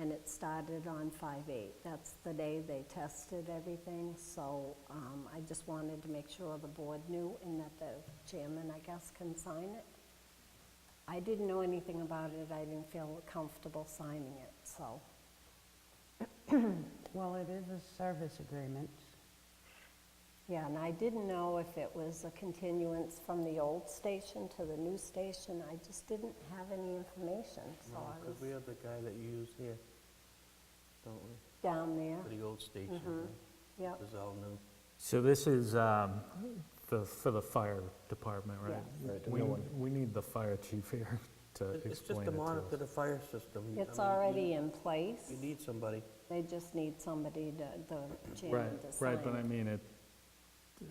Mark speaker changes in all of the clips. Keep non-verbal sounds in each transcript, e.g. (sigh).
Speaker 1: and it started on 5/8. That's the day they tested everything, so um, I just wanted to make sure the board knew and that the chairman, I guess, can sign it. I didn't know anything about it, I didn't feel comfortable signing it, so,
Speaker 2: Well, it is a service agreement.
Speaker 1: yeah, and I didn't know if it was a continuance from the old station to the new station, I just didn't have any information, so I
Speaker 3: Because we
Speaker 1: was
Speaker 3: have the guy that you use here, don't we?
Speaker 1: down there,
Speaker 3: For the old station, right?
Speaker 1: yep.
Speaker 3: This is all new.
Speaker 4: So this is um, the, for the fire department, right?
Speaker 1: Yes.
Speaker 5: Right, the
Speaker 4: We,
Speaker 5: new one.
Speaker 4: we need the fire chief here (laughs) to
Speaker 3: It- It's just
Speaker 4: Uh, explain
Speaker 3: to
Speaker 4: it to
Speaker 3: monitor
Speaker 4: us.
Speaker 3: the fire system. I mean,
Speaker 1: It's
Speaker 3: you-
Speaker 1: already in place.
Speaker 3: You need somebody.
Speaker 1: They just need somebody to, the
Speaker 4: Right,
Speaker 1: chairman to sign.
Speaker 4: right, but I mean, it,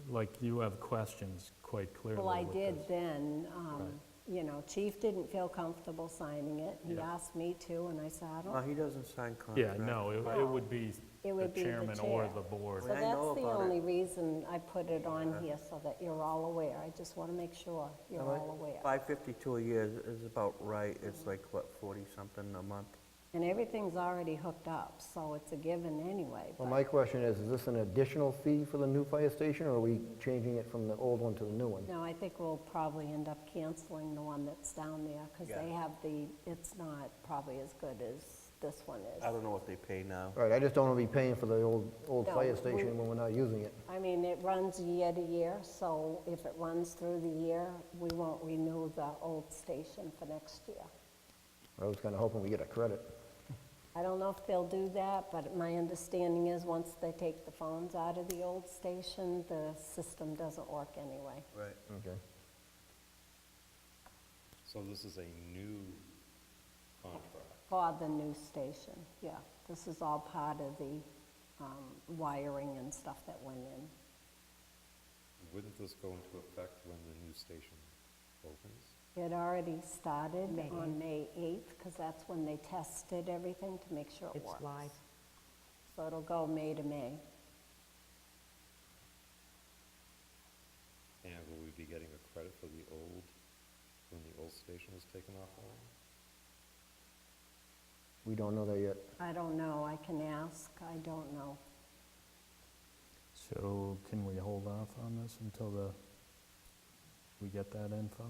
Speaker 4: like, you have questions quite clearly
Speaker 1: Well, I
Speaker 4: with
Speaker 1: did
Speaker 4: this.
Speaker 1: then, um,
Speaker 4: Right.
Speaker 1: you know, chief didn't feel comfortable signing it. He
Speaker 4: Yeah.
Speaker 1: asked me to, and I said, I
Speaker 3: No,
Speaker 1: don't,
Speaker 3: Uh, he doesn't sign
Speaker 4: Yeah,
Speaker 3: contracts.
Speaker 4: no, it- it would be
Speaker 1: It
Speaker 4: the
Speaker 1: would be the
Speaker 4: chairman or
Speaker 1: chair.
Speaker 4: the board.
Speaker 1: so
Speaker 3: I know
Speaker 1: that's the
Speaker 3: about it.
Speaker 1: only reason I put it on
Speaker 3: Yeah.
Speaker 1: here, so that you're all aware. I just want to make sure you're all aware.
Speaker 3: 552 a year is- is about right.
Speaker 1: Mm-hmm.
Speaker 3: It's like, what, 40-something a month?
Speaker 1: And everything's already hooked up, so it's a given anyway.
Speaker 5: Well,
Speaker 1: but-
Speaker 5: my question is, is this an additional fee for the new fire station, or are we changing it from the old one to the new one?
Speaker 1: No, I think we'll probably end up canceling the one that's down there, because
Speaker 3: Yeah.
Speaker 1: they have the, it's not probably as good as this one is.
Speaker 3: I don't know what they pay now.
Speaker 5: All right, I just don't want to be paying for the old, old
Speaker 1: No,
Speaker 5: fire
Speaker 1: we-
Speaker 5: station when we're not using it.
Speaker 1: I mean, it runs year to year, so if it runs through the year, we won't renew the old station for next year.
Speaker 5: I was kind of hoping we get a credit.
Speaker 1: I don't know if they'll do that, but my understanding is, once they take the phones out of the old station, the system doesn't work anyway.
Speaker 3: Right.
Speaker 5: Okay.
Speaker 6: So this is a new contract.
Speaker 1: For the new station, yeah. This is all part of the um, wiring and stuff that went in.
Speaker 6: Wouldn't this go into effect when the new station opens?
Speaker 1: It already started on May 8th, because that's when they tested everything to make sure it
Speaker 2: It's
Speaker 1: works.
Speaker 2: live.
Speaker 1: So it'll go May to May.
Speaker 6: And will we be getting a credit for the old, when the old station was taken offline?
Speaker 5: We don't know that yet.
Speaker 1: I don't know, I can ask, I don't know.
Speaker 4: So can we hold off on this until the, we get that info?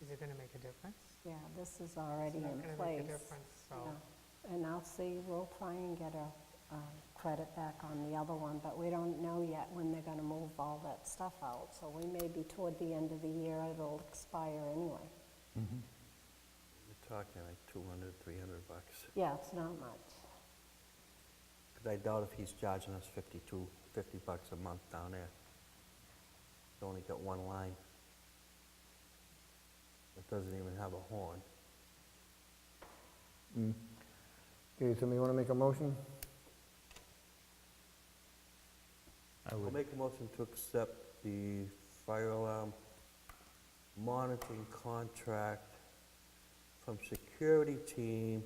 Speaker 7: Is it going to make a difference?
Speaker 1: Yeah, this is already in
Speaker 7: It's not going
Speaker 1: place.
Speaker 7: to make a difference, so.
Speaker 1: Yeah. And I'll see, we'll try and get a um, credit back on the other one, but we don't know yet when they're gonna move all that stuff out. So we may be toward the end of the year, it'll expire anyway.
Speaker 3: You're talking like 200, 300 bucks.
Speaker 1: Yeah, it's not much.
Speaker 3: Because I doubt if he's charging us 52, 50 bucks a month down there. He's only got one line. It doesn't even have a horn.
Speaker 5: Okay, somebody want to make a motion?
Speaker 4: I
Speaker 3: I'll
Speaker 4: would,
Speaker 3: make a motion to accept the fire alarm monitoring contract from security team,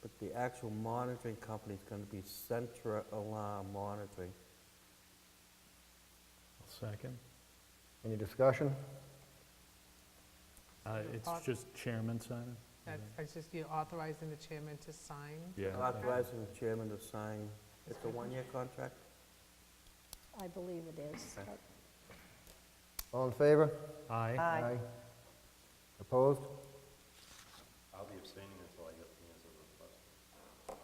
Speaker 3: but the actual monitoring company is gonna be Centra Alarm Monitoring.
Speaker 4: second.
Speaker 5: Any discussion?
Speaker 4: Uh, It's
Speaker 7: Pos-
Speaker 4: just chairman signing?
Speaker 7: That's,
Speaker 3: Mm-hmm.
Speaker 7: it's just you authorizing the chairman to sign.
Speaker 4: Yeah.
Speaker 3: Authorizing the chairman to sign, it's a one-year contract?
Speaker 1: I believe it is.
Speaker 3: Okay.
Speaker 5: All in favor?
Speaker 4: Aye.
Speaker 5: Opposed?
Speaker 6: I'll be abstaining until I get the answer to the question.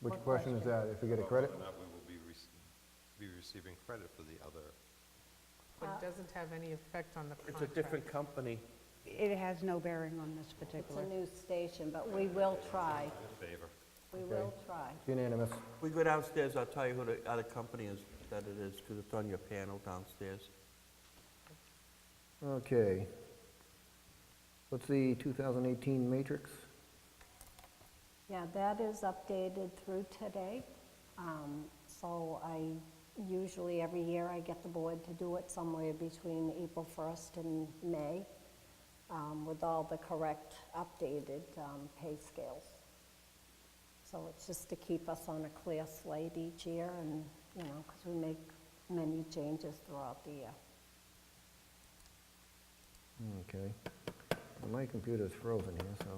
Speaker 5: Which
Speaker 1: What
Speaker 5: question is
Speaker 1: question?
Speaker 5: that, if we get a
Speaker 6: About
Speaker 5: credit?
Speaker 6: Whether or not we will be rec- be receiving credit for the other.
Speaker 7: But it doesn't have any effect on the
Speaker 3: It's a
Speaker 7: contract.
Speaker 3: different company.
Speaker 2: It has no bearing on this
Speaker 1: It's a
Speaker 2: particular.
Speaker 1: new station, but we will try,
Speaker 6: In favor.
Speaker 1: we
Speaker 5: Okay.
Speaker 1: will try.
Speaker 5: It's Unanimous.
Speaker 3: We go downstairs, I'll tell you who the other company is, that it is, because it's on your panel downstairs.
Speaker 5: Okay. What's the 2018 matrix?
Speaker 1: Yeah, that is updated through today. Um, So I, usually every year I get the board to do it somewhere between April 1st and May um, with all the correct updated um, pay scales. So it's just to keep us on a clear slate each year and, you know, because we make many changes throughout the year.
Speaker 5: Okay. My computer's frozen here, so.